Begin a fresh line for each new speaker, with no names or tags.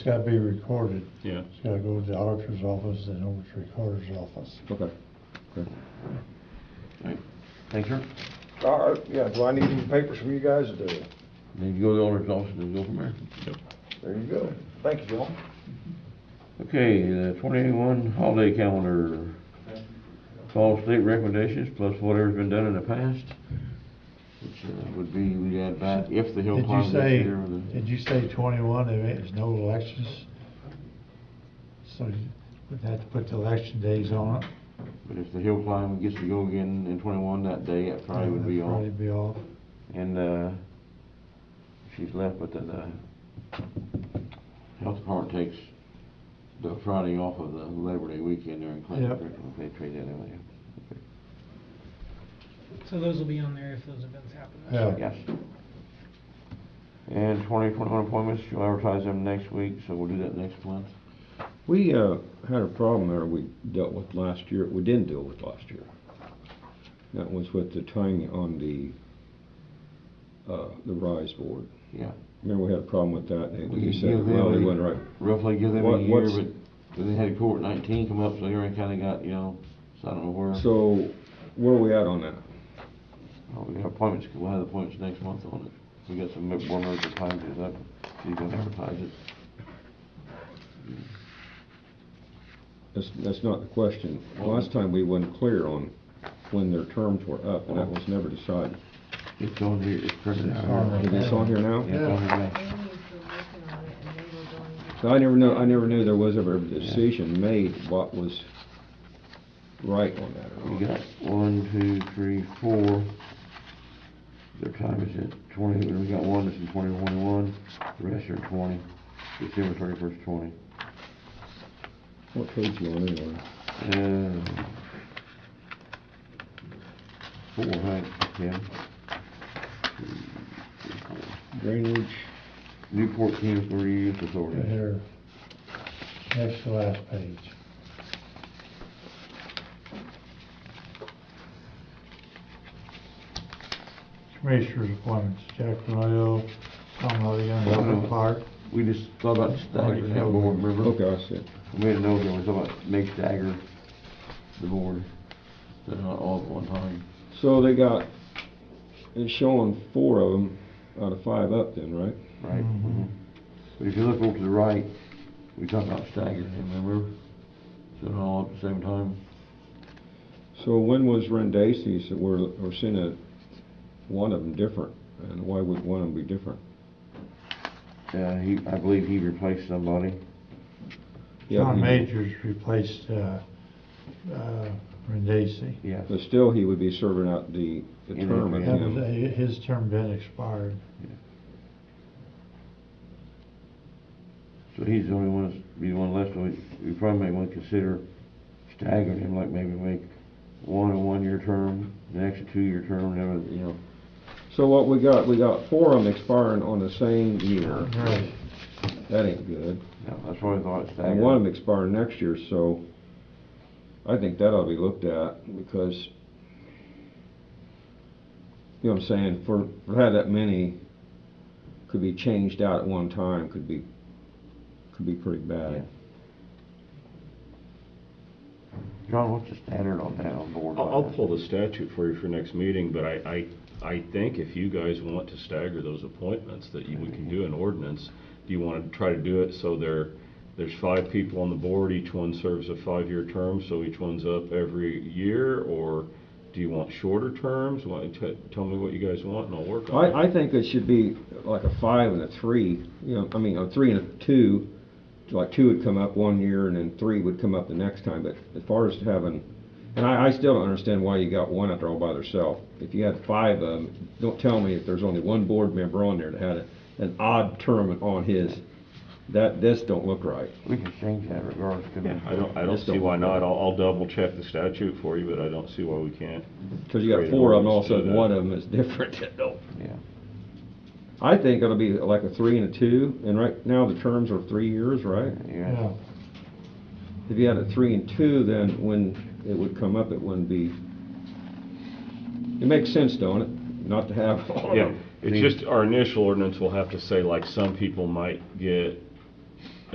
It's gotta be recorded.
Yeah,
It's gotta go to the auditor's office and over to the recorder's office.
okay.
Thank you.
All right, yeah, do I need any papers from you guys today?
Then you go to the auditor's office and go from there.
There you go. Thank you, John.
Okay, the twenty-one holiday calendar. Follow state recommendations plus whatever's been done in the past. Which uh, would be, we add back, if the hill
Did you
climb this
say,
year. or the-
did you say twenty-one, there is no elections? So you would have to put the election days on it?
But if the hill climb gets to go again in twenty-one that day, that Friday would be
Probably
on.
be off.
And, uh, she's left, but then, uh, health department takes the Friday off of the Labor Day weekend there in Clinton.
Yep.
correct? They trade that in,
So those will be on there if those events happen. this
Yeah.
yeah. Yes. And twenty twenty-one appointments, you'll advertise them next week, so we'll do that next month.
We, uh, had a problem there we dealt with last year, we didn't deal with last year. That was with the tying on the, uh, the rise board.
Yeah.
Remember, we had a problem with that, and
We
you
give
said, well,
them
we
a-
went right.
Roughly give them a
What-
year,
what's-
but then they had court nineteen come up, so they already kinda got, you know, so I don't know where.
So, where are we at on that?
Oh, we have appointments, we'll have appointments next month on it. We got some mem- more members of time to, that, so you can advertise it.
That's, that's not the question. Last time, we weren't clear on when their terms were up, and that was never decided.
It's on here, it's printed out.
on
Is this on here now?
Yeah, it's on here now.
They were working on it and they were going to
So I never know, I never knew there was ever a decision made what was right on that or not.
We got one, two, three, four. Their time is at twenty, we got one that's in twenty twenty-one, the rest are in twenty, December thirty-first, twenty.
What page you on anyway?
Uh, Four, right, yeah. Two, three, four.
Drainage,
Newport Municipal Reuse
Right
Authority.
here, next to last page. Commissioners appointments, Jack Royal, Tom Loveygan, Robert Clark.
We just thought about staggering that board, remember?
okay, I see.
We had no, we thought about make stagger the board, but not all at one time.
So they got, it's showing four of them out of five up then, right?
Right. Mm-hmm.
Mhm.
But if you look over to the right, we talked about staggering him, remember? So they're all at the same time.
So when was Rendacy's, that we're, we're seeing a, one of them different, and why would one of them be different?
Uh, he, I believe he replaced somebody.
Yeah,
John
he-
Majors replaced, uh, uh, Rendesi.
Yes.
But still, he would be serving out the, the
In
term of
advance.
That was,
him.
his term been expired.
So he's the only one, that's be the one left, so we, we probably may want to consider staggering him, like maybe make one a one-year term, the next a two-year term, and then, you know.
So what we got, we got four of them expiring on the same year.
Right.
That ain't good.
Yeah, that's what I thought,
And one
stagger.
of them expiring next year, so I think that ought to be looked at because, you know what I'm saying, for, for how that many could be changed out at one time, could be, could be pretty bad.
John, what's the standard on that on board?
I'll, I'll pull the statute for you for next meeting, but I, I, I think if you guys want to stagger those appointments, that you, we can do an ordinance. Do you wanna try to do it so there, there's five people on the board, each one serves a five-year term, so each one's up every year? Or do you want shorter terms? Want, t- tell me what you guys want and I'll work on it.
I, I think it should be like a five and a three, you know, I mean, a three and a two, like two would come up one year and then three would come up the next time, but as far as having, and I, I still don't understand why you got one out there all by herself. If you had five of them, don't tell me if there's only one board member on there that had a, an odd term on his, that, this don't look right.
We can change that regardless, couldn't we?
I don't, I don't
Just don't-
see why not. I'll, I'll double-check the statute for you, but I don't see why we can't.
Cause you got
Create an
four of them, all of a sudden
ordinance to do that.
one of them is different, that don't.
Yeah.
I think it'll be like a three and a two, and right now the terms are three years, right?
Yeah.
Yeah.
If you had a three and two, then when it would come up, it wouldn't be, it makes sense, don't it, not to have all of
Yeah,
them?
it's just, our initial ordinance will have to say, like, some people might get